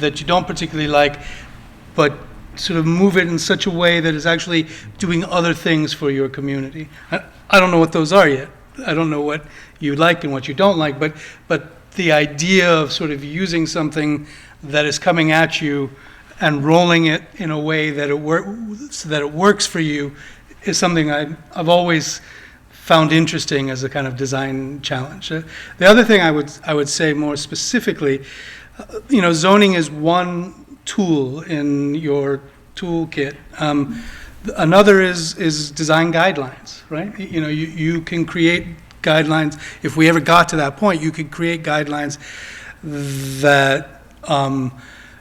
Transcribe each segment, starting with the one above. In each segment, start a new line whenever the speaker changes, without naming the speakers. that you don't particularly like, but sort of move it in such a way that is actually doing other things for your community. I I don't know what those are yet. I don't know what you like and what you don't like, but, but the idea of sort of using something that is coming at you and rolling it in a way that it wor, so that it works for you is something I, I've always found interesting as a kind of design challenge. Uh, The other thing I would, I would say more specifically, uh, you know, zoning is one tool in your toolkit. Um, th- Another is, is design guidelines, right? Y- You know, you, you can create guidelines, if we ever got to that point, you could create guidelines that, um,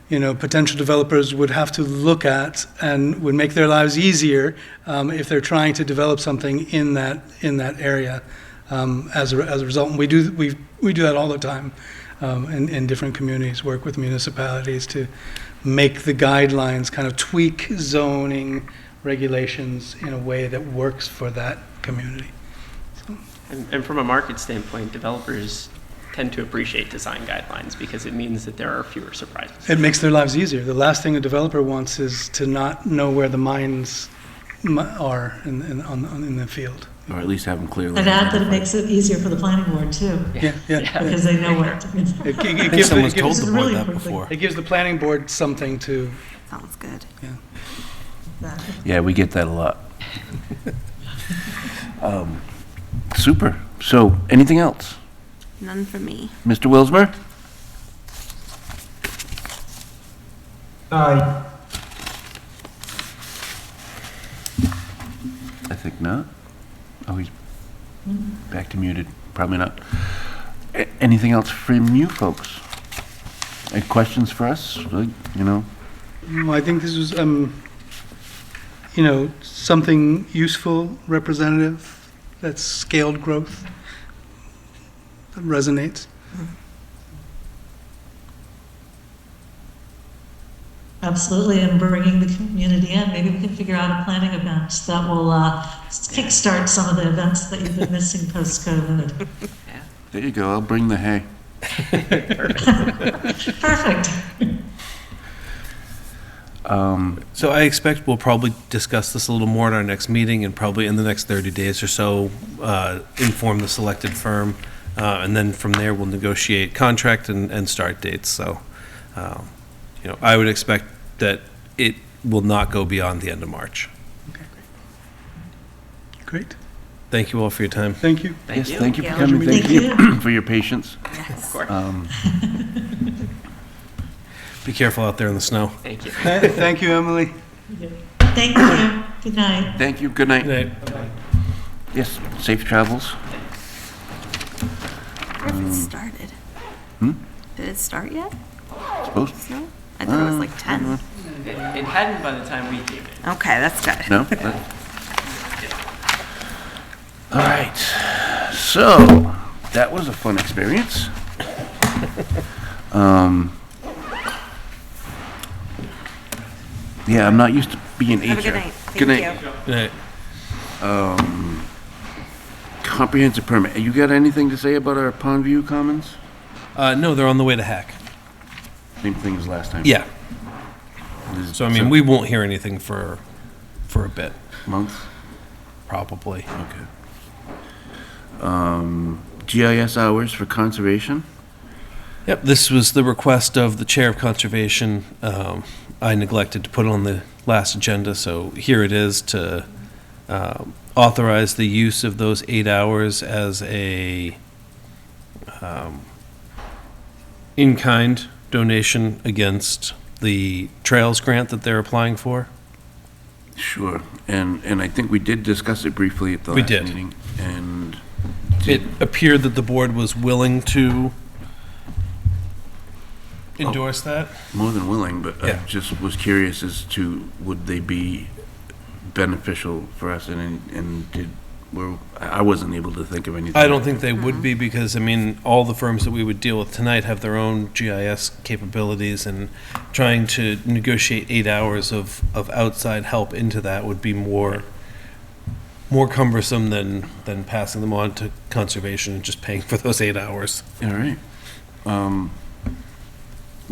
you know, potential developers would have to look at and would make their lives easier um, if they're trying to develop something in that, in that area um, as, a, as a result. And we do, we, we do that all the time um, in, in different communities, work with municipalities to make the guidelines, kind of tweak zoning regulations in a way that works for that community.
And, and from a market standpoint, developers tend to appreciate design guidelines because it means that there are fewer surprises.
It makes their lives easier. The last thing a developer wants is to not know where the mines mi- are in, in, on, on- in the field.
Or at least have them clearly.
And add that it
identified.
makes it easier for the planning board too,
Yeah, yeah. yeah.
because they know what.
It, gi- it
I think
gives, the-
someone's
it,
told
gives,
the
This is
board
really
that
perfect.
before.
it gives the planning board something to,
Sounds good.
Yeah, we get that a lot. Um, Super. So, anything else?
None for me.
Mr. Wilsmer?
Aye.
I think not. Oh, he's back to muted. Probably not. A- Anything else from you folks? Any questions for us? Like, You know,
No, I think this was, um, you know, something useful, representative, that's scaled growth, that resonates.
Absolutely, and bringing the community in. Maybe we can figure out a planning event that will uh, kickstart some of the events that you've been missing post-COVID.
there you go. I'll bring the hay.
Perfect.
Um,
So I expect we'll probably discuss this a little more at our next meeting and probably in the next 30 days or so, uh, inform the selected firm. uh, And then from there, we'll negotiate contract and, and start dates. So, um, you know, I would expect that it will not go beyond the end of March.
Great,
Thank you all for your time.
thank you.
Thank
Yes,
you.
thank you for
Yeah.
coming.
Thank
Thank you for your patience.
Of course.
Um,
Be careful out there in the snow.
Thank you.
Th- Thank you, Emily.
Thank you. Good night.
Thank you. Good night. Yes, safe travels.
Where if it started? Did it start yet?
Supposed
No? I thought it was like 10.
It it hadn't by the time we came in.
Okay, that's good.
No? That- All right, so, that was a fun experience. Um, Yeah, I'm not used to being HR.
Have a good night. Thank
Good
you.
night.
Good night.
Comprehensive permit, you got anything to say about our Pondview Commons?
Uh, No, they're on the way to Hack.
Same thing as last time.
Yeah.
This is
So I mean, we won't hear anything for, for a bit,
Month,
probably.
okay. Um, GIS hours for conservation?
Yep, this was the request of the Chair of Conservation. Um, I neglected to put it on the last agenda, so here it is to um, authorize the use of those eight hours as a um, in-kind donation against the Trails Grant that they're applying for.
Sure, and, and I think we did discuss it briefly at the
We
last
did.
meeting. And
It appeared that the board was willing to
Oh.
endorse that.
more than willing, but I
Yeah.
just was curious as to, would they be beneficial for us? And, and did, were, I I wasn't able to think of anything.
I don't think they would be because, I mean, all the firms that we would deal with tonight have their own GIS capabilities and trying to negotiate eight hours of, of outside help into that would be more, more cumbersome than, than passing them on to conservation and just paying for those eight hours.
All right. Um,